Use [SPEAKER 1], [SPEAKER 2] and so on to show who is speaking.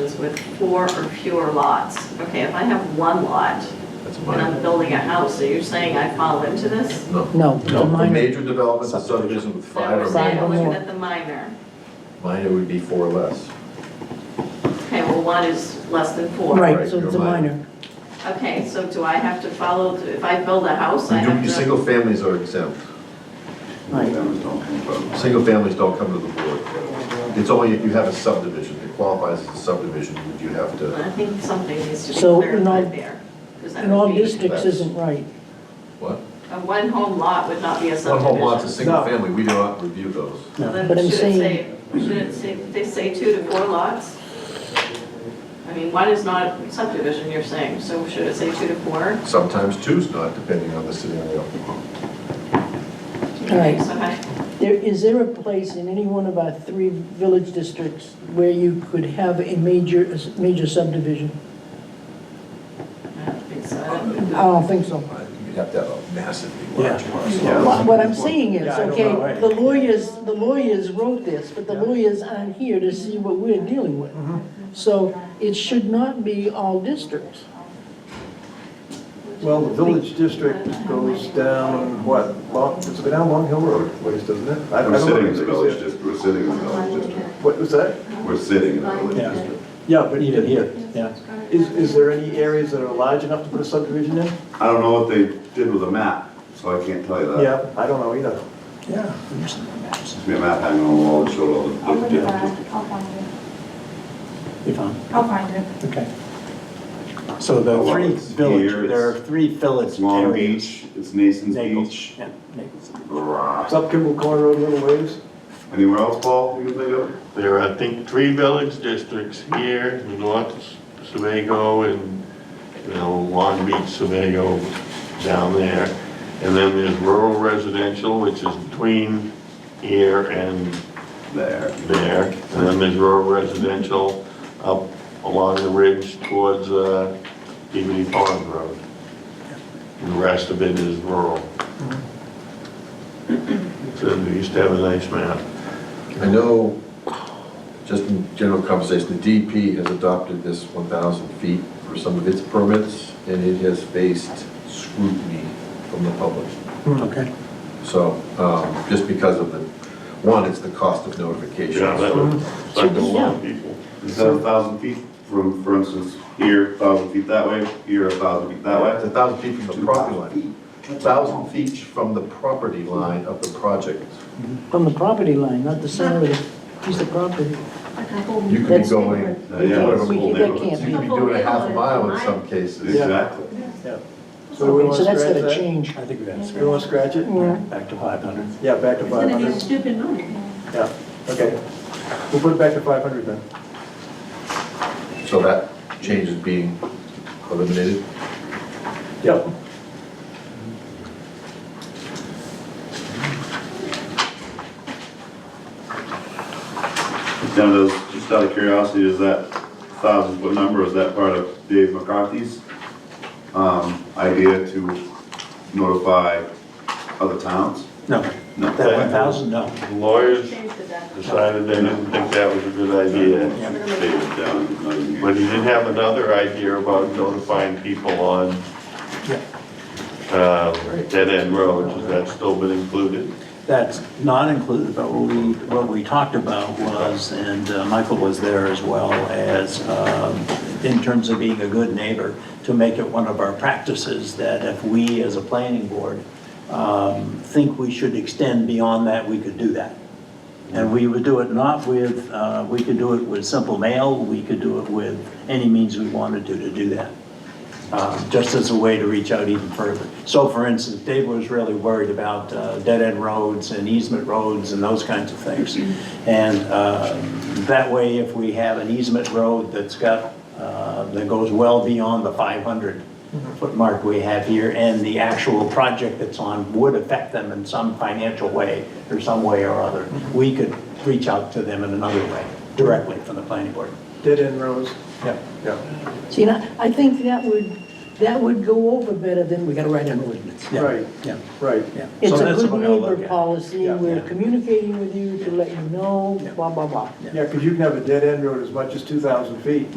[SPEAKER 1] with four or fewer lots. Okay, if I have one lot
[SPEAKER 2] That's
[SPEAKER 1] and I'm
[SPEAKER 2] minor.
[SPEAKER 1] building a house, so you're saying I fall into this?
[SPEAKER 2] No.
[SPEAKER 3] No, it's a
[SPEAKER 2] No, a
[SPEAKER 3] minor.
[SPEAKER 2] major development, a subdivision with five or
[SPEAKER 1] So I'm
[SPEAKER 2] more.
[SPEAKER 3] Five or
[SPEAKER 1] looking
[SPEAKER 3] more.
[SPEAKER 1] Oh, at the minor.
[SPEAKER 2] Minor would be four or less.
[SPEAKER 1] Okay, well, one is less than four.
[SPEAKER 3] Right, so
[SPEAKER 2] Right,
[SPEAKER 3] it's a
[SPEAKER 2] you're minor.
[SPEAKER 3] minor.
[SPEAKER 1] Okay, so do I have to follow, if I build a house, I
[SPEAKER 2] You do-
[SPEAKER 1] have
[SPEAKER 2] Your
[SPEAKER 1] to?
[SPEAKER 2] single families are exempt.
[SPEAKER 3] Right.
[SPEAKER 2] Single families don't come to the board. It's only if you have a subdivision, it qualifies as a subdivision, would you have to,
[SPEAKER 1] I think something needs to be
[SPEAKER 3] So, in all-
[SPEAKER 1] clarified there. 'cause that
[SPEAKER 3] In all
[SPEAKER 1] would be-
[SPEAKER 3] districts isn't right.
[SPEAKER 2] what?
[SPEAKER 1] A one-home lot would not be a
[SPEAKER 2] One
[SPEAKER 1] subdivision.
[SPEAKER 2] whole lot's a single family, we do not review those.
[SPEAKER 1] So then
[SPEAKER 3] But I'm
[SPEAKER 1] should it
[SPEAKER 3] saying,
[SPEAKER 1] say- Should it say, they say two to four lots? I mean, one is not subdivision, you're saying, so should it say two to four?
[SPEAKER 2] Sometimes two's not, depending on the scenario.
[SPEAKER 1] Okay, so I-
[SPEAKER 3] there, is there a place in any one of our three village districts where you could have a major, a major subdivision?
[SPEAKER 1] I don't think so.
[SPEAKER 3] I don't think so.
[SPEAKER 2] You'd have to have a massively large
[SPEAKER 4] Yeah.
[SPEAKER 2] parcel.
[SPEAKER 3] What I'm saying is,
[SPEAKER 4] Yeah, I don't know,
[SPEAKER 3] okay,
[SPEAKER 4] right.
[SPEAKER 3] the lawyers, the lawyers wrote this, but the
[SPEAKER 4] Yeah.
[SPEAKER 3] lawyers aren't here to see what we're dealing with.
[SPEAKER 4] Mm-hmm.
[SPEAKER 3] So it should not be all districts.
[SPEAKER 4] Well, the village district goes down, what, Long, it's down Long Hill Road, ways, doesn't it? I- I
[SPEAKER 5] We're
[SPEAKER 4] don't know
[SPEAKER 5] sitting in
[SPEAKER 4] if
[SPEAKER 5] the
[SPEAKER 4] it's-
[SPEAKER 5] village district, we're sitting in the village district.
[SPEAKER 4] What was that?
[SPEAKER 5] We're sitting in the village
[SPEAKER 4] Yeah.
[SPEAKER 5] district.
[SPEAKER 4] Yeah, but even here, yeah. Is, is there any areas that are large enough to put a subdivision in?
[SPEAKER 5] I don't know what they did with the map, so I can't tell you that.
[SPEAKER 4] Yeah, I don't know either. Yeah.
[SPEAKER 5] There's a map hanging on the wall that showed all the
[SPEAKER 6] I'll
[SPEAKER 5] different
[SPEAKER 6] look it up.
[SPEAKER 5] districts.
[SPEAKER 6] I'll find it.
[SPEAKER 7] You found,
[SPEAKER 6] I'll find it.
[SPEAKER 7] okay. So the
[SPEAKER 5] Well,
[SPEAKER 7] three
[SPEAKER 5] it's
[SPEAKER 7] village,
[SPEAKER 5] here,
[SPEAKER 7] there are
[SPEAKER 5] it's-
[SPEAKER 7] three village
[SPEAKER 5] It's Long
[SPEAKER 7] areas.
[SPEAKER 5] Beach, it's Nason's
[SPEAKER 7] Naples,
[SPEAKER 5] Beach.
[SPEAKER 7] yeah, Naples.
[SPEAKER 4] It's
[SPEAKER 5] Rah.
[SPEAKER 4] up Kimball Corner Road a little ways.
[SPEAKER 5] Anywhere else, Paul, you can think of?
[SPEAKER 8] There are, I think, three village districts here, North Sebago and, you know, Long Beach, Sebago down there. And then there's rural residential, which is between here and
[SPEAKER 5] There.
[SPEAKER 8] there. And then there's rural residential up along the ridge towards uh, Peabody Pond Road. And The rest of it is rural. So we used to have a nice map.
[SPEAKER 2] I know, just in general conversation, the DP has adopted this 1,000 feet for some of its permits, and it has faced scrutiny from the public.
[SPEAKER 7] Hmm, Okay.
[SPEAKER 2] So, um, just because of the, one, it's the cost of notification.
[SPEAKER 8] Yeah, that would suck a lot of people.
[SPEAKER 5] Instead of a thousand feet from, for instance, here, a thousand feet that way, here, a thousand feet that
[SPEAKER 2] It's
[SPEAKER 5] way.
[SPEAKER 2] a thousand feet from the property line. Thousand feet from the property line of the project.
[SPEAKER 3] From the property line, not the center of the piece of property.
[SPEAKER 2] You could be
[SPEAKER 3] That's-
[SPEAKER 2] going.
[SPEAKER 5] Uh, yeah, that's a
[SPEAKER 3] We-
[SPEAKER 5] whole
[SPEAKER 3] that
[SPEAKER 5] neighborhood.
[SPEAKER 3] can't
[SPEAKER 2] You could be doing a half a mile in some cases.
[SPEAKER 5] Exactly.
[SPEAKER 4] Yeah. So we
[SPEAKER 3] Okay,
[SPEAKER 4] want
[SPEAKER 3] so
[SPEAKER 4] to
[SPEAKER 3] that's
[SPEAKER 4] scratch
[SPEAKER 3] gotta
[SPEAKER 4] that?
[SPEAKER 3] change.
[SPEAKER 7] I think we have
[SPEAKER 4] We want to scratch it?
[SPEAKER 7] to back to 500.
[SPEAKER 4] Yeah, back to five hundred.
[SPEAKER 1] stupid money.
[SPEAKER 4] Yeah, okay. We'll put it back to five hundred then.
[SPEAKER 2] So that change is being eliminated.
[SPEAKER 4] Yep.
[SPEAKER 5] Now, does, just out of curiosity, is that thousand foot number, is that part of Dave McCarthy's, um, idea to notify other towns?
[SPEAKER 7] No,
[SPEAKER 5] No.
[SPEAKER 7] that 1,000, no.
[SPEAKER 8] Lawyers
[SPEAKER 1] Change the definition.
[SPEAKER 8] decided they didn't think that was a good idea.
[SPEAKER 5] Dave's down, not even
[SPEAKER 8] But
[SPEAKER 5] here.
[SPEAKER 8] he did have another idea about notifying people on
[SPEAKER 7] Yeah.
[SPEAKER 8] um, dead-end roads. Has that still been included?
[SPEAKER 7] That's not included, but what we, what we talked about was, and uh, Michael was there as well as, um, in terms of being a good neighbor, to make it one of our practices, that if we as a planning board um, think we should extend beyond that, we could do that. And we would do it not with, uh, we could do it with simple mail, we could do it with any means we wanted to, to do that uh, just as a way to reach out even further. So for instance, Dave was really worried about uh, dead-end roads and easement roads and those kinds of things. And uh, that way, if we have an easement road that's got, uh, that goes well beyond the 500-foot mark we have here, and the actual project that's on would affect them in some financial way or some way or other, we could reach out to them in another way, directly from the planning board.
[SPEAKER 4] Dead end rows.
[SPEAKER 7] Yeah.
[SPEAKER 4] Yeah,
[SPEAKER 3] See, and I, I think that would, that would go over better than, we gotta write an ordinance.
[SPEAKER 7] Yeah,
[SPEAKER 4] Right.
[SPEAKER 7] Yeah.
[SPEAKER 4] right.
[SPEAKER 7] Yeah.
[SPEAKER 3] It's
[SPEAKER 7] So
[SPEAKER 3] a
[SPEAKER 7] that's
[SPEAKER 3] good
[SPEAKER 7] what I'll look
[SPEAKER 3] neighbor
[SPEAKER 7] at.
[SPEAKER 3] policy,
[SPEAKER 4] Yeah.
[SPEAKER 3] we're
[SPEAKER 7] Yeah.
[SPEAKER 3] communicating with you to let you know,
[SPEAKER 7] Yeah.
[SPEAKER 3] blah, blah, blah.
[SPEAKER 4] Yeah, because you can have a dead end road as much as two thousand feet.